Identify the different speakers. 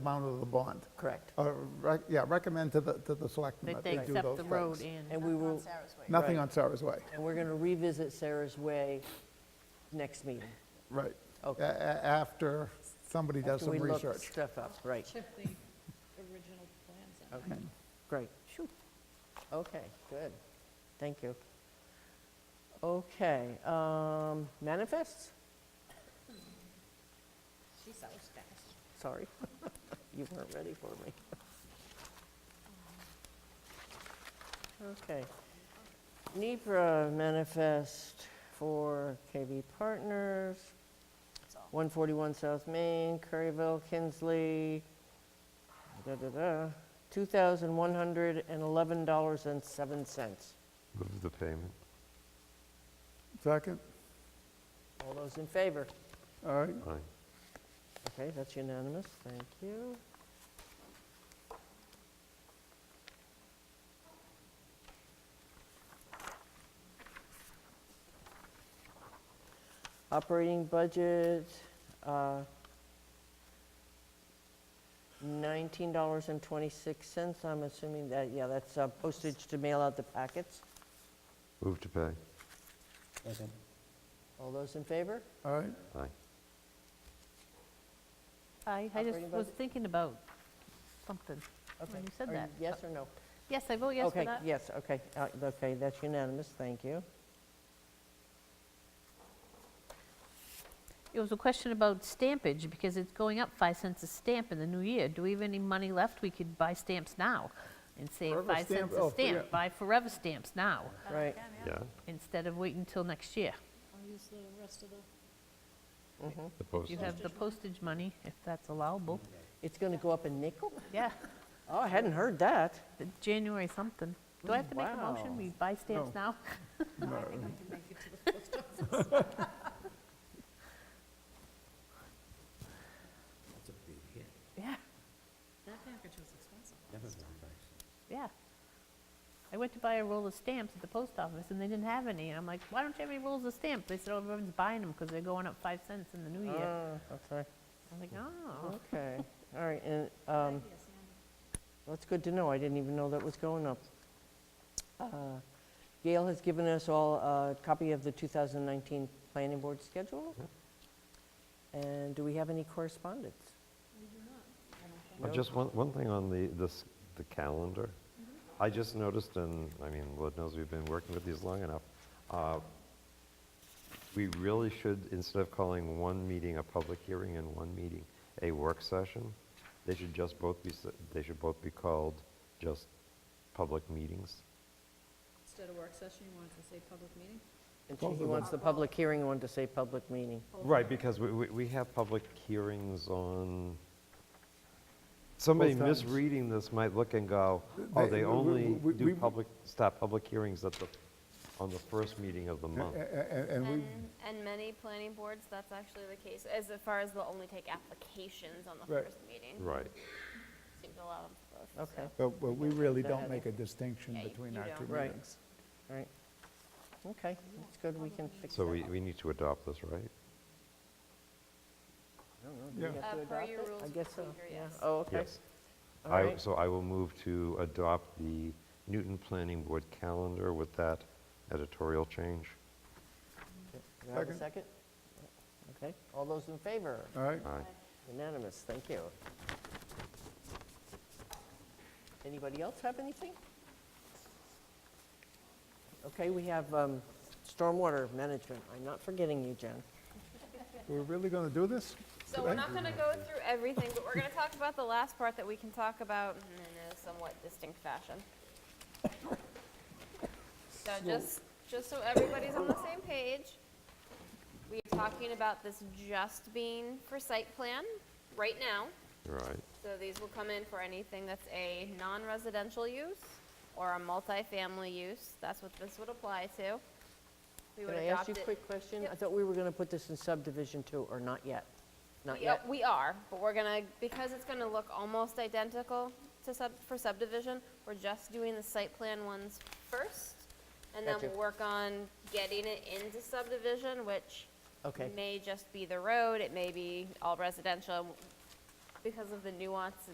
Speaker 1: amount of the bond.
Speaker 2: Correct.
Speaker 1: Or, rec- yeah, recommend to the, to the selectmen
Speaker 3: That
Speaker 1: that
Speaker 3: they
Speaker 1: they do those
Speaker 3: accept the road
Speaker 1: things.
Speaker 3: in.
Speaker 2: And we will,
Speaker 1: Nothing
Speaker 2: Right.
Speaker 1: on Sarah's Way,
Speaker 2: and we're going to revisit Sarah's Way next meeting.
Speaker 1: right.
Speaker 2: Okay.
Speaker 1: A- a- After somebody does
Speaker 2: After
Speaker 1: some
Speaker 2: We look
Speaker 1: research.
Speaker 2: stuff up, right,
Speaker 4: Chip the original plans in.
Speaker 2: okay, great. Phew. Okay, good, thank you. Okay, um, manifests,
Speaker 4: She's so fast.
Speaker 2: sorry, you weren't ready for me. Okay. NEPR manifest for KV Partners,
Speaker 4: That's all.
Speaker 2: 141 South Main, Curryville, Kinsley, da-da-da, $2,111.07.
Speaker 5: Move the payment.
Speaker 1: Second,
Speaker 2: All those in favor?
Speaker 1: all right,
Speaker 5: Aye.
Speaker 2: Okay, that's unanimous, thank you. Operating budget, uh, $19.26, I'm assuming that, yeah, that's uh, postage to mail out the packets.
Speaker 5: Move to pay.
Speaker 6: Second.
Speaker 2: All those in favor?
Speaker 1: all right.
Speaker 5: Aye.
Speaker 3: I, I just
Speaker 2: Operating
Speaker 3: was
Speaker 2: budget?
Speaker 3: thinking about something when you said
Speaker 2: Are
Speaker 3: that.
Speaker 2: Yes or no?
Speaker 3: Yes, I vote yes for that.
Speaker 2: Okay, yes, okay, uh, okay, that's unanimous, thank you.
Speaker 3: It was a question about stampage, because it's going up five cents a stamp in the new year. Do we have any money left? We could buy stamps now and save
Speaker 1: Forever
Speaker 3: five
Speaker 1: stamp-
Speaker 3: cents
Speaker 1: oh,
Speaker 3: a
Speaker 1: for- yeah.
Speaker 3: stamp. Buy forever stamps now,
Speaker 2: Right.
Speaker 5: Yeah?
Speaker 3: instead of waiting until next year.
Speaker 4: I'll use the rest of the.
Speaker 5: The
Speaker 3: You have the postage money, if that's allowable.
Speaker 2: It's going to go up a nickel?
Speaker 3: Yeah,
Speaker 2: Oh, I hadn't heard that.
Speaker 3: the January something. Do I have to make a motion?
Speaker 2: Wow.
Speaker 3: We buy stamps now?
Speaker 6: That's a big hit.
Speaker 3: Yeah,
Speaker 4: That package was expensive.
Speaker 6: Never been priced.
Speaker 3: yeah. I went to buy a roll of stamps at the post office, and they didn't have any. And I'm like, why don't you have any rolls of stamps? They said, oh, everyone's buying them because they're going up five cents in the new year.
Speaker 2: Ah, okay,
Speaker 3: I'm like, oh.
Speaker 2: okay, all right, and, um, that's good to know, I didn't even know that was going up. Uh, Gail has given us all a copy of the 2019 Planning Board schedule. And do we have any correspondence? No?
Speaker 5: Uh, Just one, one thing on the, this, the calendar.
Speaker 3: Mm-hmm.
Speaker 5: I just noticed, and, I mean, Lord knows we've been working with these long enough, uh, we really should, instead of calling one meeting a public hearing and one meeting a work session, they should just both be, s- they should both be called just public meetings.
Speaker 4: Instead of work session, you wanted to say public meeting?
Speaker 2: And she- he wants the public hearing, one to say public meeting.
Speaker 5: Right, because we, we, we have public hearings on, somebody
Speaker 1: Both times.
Speaker 5: misreading this might look and go, oh,
Speaker 1: They-
Speaker 5: they
Speaker 1: we- we-
Speaker 5: only
Speaker 1: we- we-
Speaker 5: do public, stop public hearings at the, on the first meeting of the month.
Speaker 1: And, and we,
Speaker 7: And, and many planning boards, that's actually the case, as far as they'll only take applications on the
Speaker 1: Right.
Speaker 7: first meeting.
Speaker 5: Right.
Speaker 7: Seems a lot of both.
Speaker 2: Okay,
Speaker 7: so. Uh,
Speaker 1: but but we really
Speaker 2: Go
Speaker 1: don't
Speaker 2: ahead.
Speaker 1: make a distinction
Speaker 7: Yeah, you-
Speaker 1: between
Speaker 7: you
Speaker 1: our two
Speaker 7: don't.
Speaker 2: Right.
Speaker 1: meetings.
Speaker 2: all right, okay, that's good, we can fix that.
Speaker 5: So we, we need to adopt this, right?
Speaker 2: I don't know, do we
Speaker 1: Yeah.
Speaker 2: have to
Speaker 7: Uh, per
Speaker 2: adopt
Speaker 7: your
Speaker 2: it?
Speaker 7: rules
Speaker 2: I
Speaker 7: of
Speaker 2: guess so,
Speaker 7: procedure,
Speaker 2: yeah.
Speaker 7: yes.
Speaker 2: Oh, okay.
Speaker 5: Yes.
Speaker 2: All
Speaker 5: I-
Speaker 2: right.
Speaker 5: So I will move to adopt the Newton Planning Board calendar with that editorial change.
Speaker 2: Do I have a
Speaker 1: Second.
Speaker 2: second? Okay, all those in favor?
Speaker 1: All right,
Speaker 5: Aye.
Speaker 2: Unanimous, thank you. Anybody else have anything? Okay, we have um, stormwater management. I'm not forgetting you, Jen.
Speaker 1: we're really going to do this?
Speaker 7: So we're not gonna go through everything, but we're gonna talk about the last part that we can talk about in a somewhat distinct fashion. So just, just so everybody's on the same page, we're talking about this just being for site plan right now.
Speaker 5: Right.
Speaker 7: So these will come in for anything that's a non-residential use or a multifamily use. That's what this would apply to.
Speaker 2: Can
Speaker 7: We would
Speaker 2: I ask
Speaker 7: adopt
Speaker 2: you
Speaker 7: it.
Speaker 2: a quick question? I
Speaker 7: Yep.
Speaker 2: thought we were going to put this in subdivision too, or not yet? Not
Speaker 7: We are-
Speaker 2: yet?
Speaker 7: We are, but we're gonna, because it's gonna look almost identical to sub, for subdivision, we're just doing the site plan ones first. And then
Speaker 2: Gotcha.
Speaker 7: we'll work on getting it into subdivision, which
Speaker 2: Okay,
Speaker 7: may just be the road, it may be all residential. because of the nuances